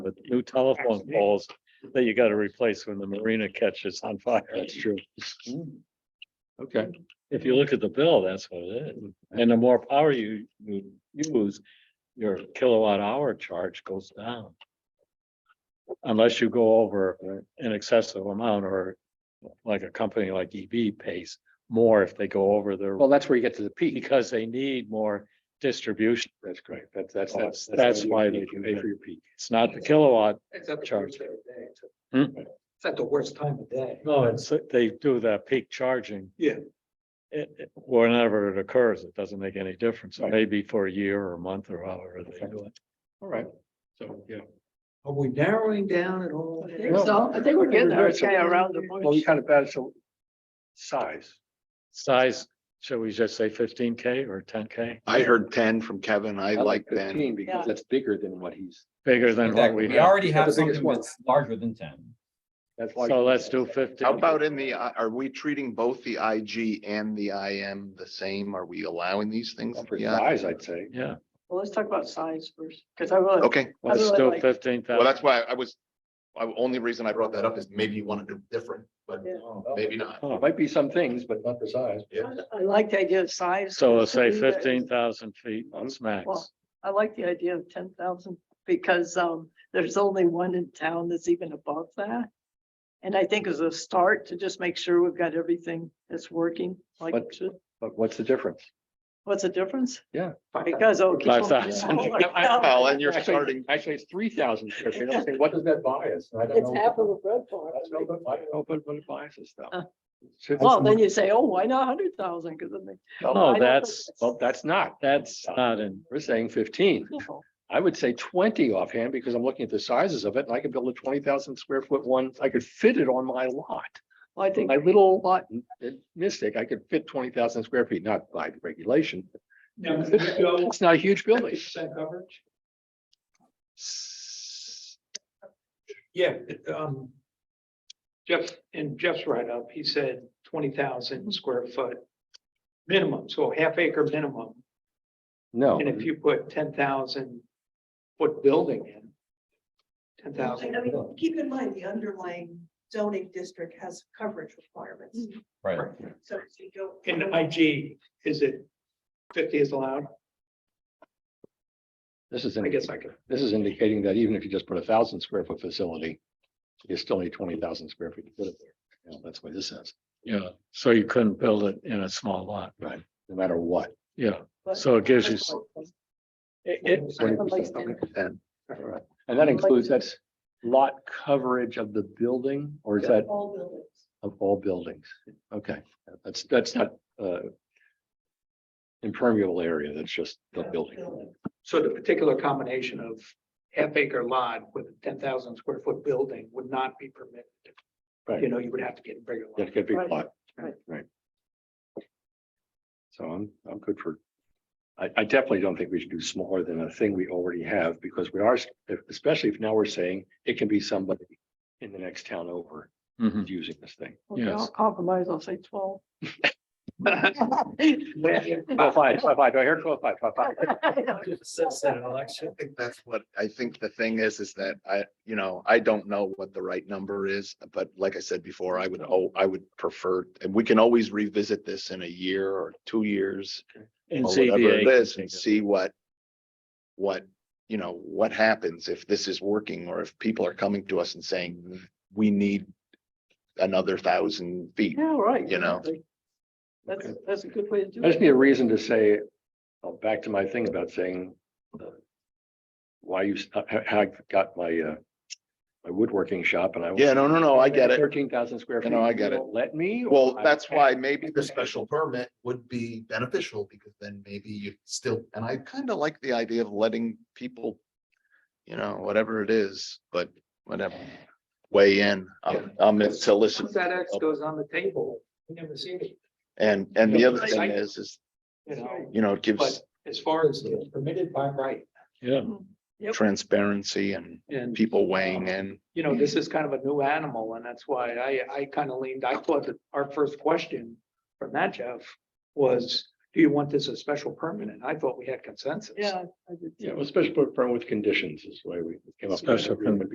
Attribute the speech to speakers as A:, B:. A: two telephone poles that you gotta replace when the marina catches on fire. That's true.
B: Okay,
A: If you look at the bill, that's what it is. And the more power you, you use, your kilowatt hour charge goes down. Unless you go over an excessive amount or like a company like EB pays more if they go over their,
B: well, that's where you get to the peak.
A: because they need more distribution.
B: That's great. That's, that's,
A: That's,
B: that's.
A: that's why they pay
B: you pay
A: for
B: for
A: your peak. It's not the kilowatt.
C: It's at the
A: Charge.
C: worst time of day.
A: Hmm?
C: It's at the worst time of day.
A: No, it's, they do that peak charging.
C: Yeah.
A: It, it- whenever it occurs, it doesn't make any difference. It may be for a year or a month or however they do it.
B: All right, so, yeah.
C: Are we narrowing down at all?
D: I think so. I think we're getting there. It's kind of around the
B: Well, you
D: bush.
B: kind of bad, so size.
A: Size, should we just say fifteen K or ten K?
E: I heard ten from Kevin. I like ten.
B: fifteen Because that's bigger than what he's,
A: Bigger than what
F: Exactly.
A: we
F: We
A: have.
F: already
B: Yeah, the
F: have
B: biggest
F: something
B: one.
F: that's larger than ten.
B: that's why.
A: So let's do fifteen.
E: How about in the, I- are we treating both the IG and the IM the same? Are we allowing these things?
B: For
E: Yeah,
B: size, I'd say.
A: Yeah,
D: Well, let's talk about size first, because I really.
E: okay.
D: I
A: let's
D: really
A: do
D: like-
A: fifteen
E: Well,
A: thousand.
E: that's why I was, I, only reason I brought that up is maybe you want to do different, but
D: Yeah.
E: Oh, maybe not.
B: It Might be some things, but not the size.
E: Yeah.
D: I like the idea of size.
A: So we'll say
D: Something that-
A: fifteen thousand feet, that's
B: Hmm?
A: max.
D: Well, I like the idea of ten thousand because um there's only one in town that's even above that. And I think as a start to just make sure we've got everything that's working like it
B: But-
D: should.
B: But what's the difference?
D: What's the difference?
B: Yeah.
D: Because. oh,
A: Five thousand.
E: Well, and you're
B: Actually-
E: starting,
B: Actually, it's three thousand. What does that bias?
D: It's half of a bread bar.
B: Open, but it biases
D: Uh.
B: stuff.
D: Well, then you say, oh, why not hundred thousand? Because then they.
A: No,
D: I don't
A: that's,
D: think
B: Well, Oh, that's not,
A: that's not in,
B: we're saying fifteen.
D: no.
B: I would say twenty offhand because I'm looking at the sizes of it and I could build a twenty thousand square foot one. I could fit it on my lot.
D: Well, I think.
B: My little lot in- in Mystic, I could fit twenty thousand square feet, not by the regulation. It's not a huge building.
C: coverage? Yeah, it, um. Jeff, in Jeff's write-up, he said twenty
G: Mm-hmm.
C: thousand square foot minimum, so half acre minimum.
B: No,
C: And if you put ten thousand foot building in. Ten thousand.
G: I mean, keep in mind, the underlying zoning district has coverage requirements,
F: Right.
G: so if you go.
C: In IG, is it fifty is allowed?
B: this is,
C: I
B: in-
C: guess I could.
B: this is indicating that even if you just put a thousand square foot facility, you still need twenty thousand square feet to put it there. You know, That's what this says,
A: yeah, so you couldn't build it in a small lot.
B: no matter what.
A: Yeah,
D: but-
A: so it gives you, s- it, it,
B: 20%.
D: Like
B: Okay, 10. All right. And that includes, that's lot coverage of the building or is that
G: All buildings.
B: Of all buildings, okay, that's, that's not, uh. Impermeable area, that's just the
G: have
B: building,
G: buildings.
C: So the particular combination of half acre lot with a ten thousand square foot building would not be permitted.
B: Right.
C: You know, you would have to get a bigger lot.
B: that could be
D: Right,
B: lot.
D: right.
B: Right. So I'm, I'm good for, I, I definitely don't think we should do smaller than a thing we already have, because we are, especially if now we're saying it can be somebody. In the next town over
A: mhm.
B: who's using this thing.
D: Okay, I'll
A: Yes.
D: compromise, I'll say twelve.
B: Twelve five, twelve five, do I hear twelve five, twelve five?
E: I think that's what, I think the thing is, is that I, you know, I don't know what the right number is, but like I said before, I would, oh, I would prefer, and we can always revisit this in a year or two years.
A: and
E: or whatever
A: ZBA
E: it
A: can
E: is
A: take
E: and
A: it.
E: see what, what, you know, what happens if this is working or if people are coming to us and saying, we need another thousand feet.
D: Yeah, right.
E: You know.
D: exactly. That's, that's a good way to do
B: I just
D: it.
B: need a reason to say, oh, back to my thing about saying. uh, Why you, s- how, how I got my, uh, my woodworking shop and I.
E: Yeah, no, no, no, I get it.
B: Thirteen thousand square
E: No,
B: feet.
E: no, I
B: you
E: get it.
B: won't Let me? or
E: Well,
B: I
E: that's
B: can't.
E: why maybe the special permit would be beneficial because then maybe you still, and I kind of like the idea of letting people. You know, whatever it is, but whatever, weigh in, I'm, I'm in to listen.
C: Once that X goes on the table, you never see it,
E: And, and the
C: Yeah,
E: other
C: I-
E: thing is, is,
C: you know,
E: you know, it
C: but
E: gives
C: as far as it's permitted by right.
A: Yeah,
D: Yep.
E: transparency and
C: And,
E: people weighing in.
C: you know, this is kind of a new animal and that's why I, I kind of leaned, I thought that our first question from that Jeff was, do you want this as special permit? And I thought we had consensus.
D: Yeah. I did too.
B: Yeah, well, special permit with conditions is why we came up. with that
A: Special
B: agreement.
A: permit.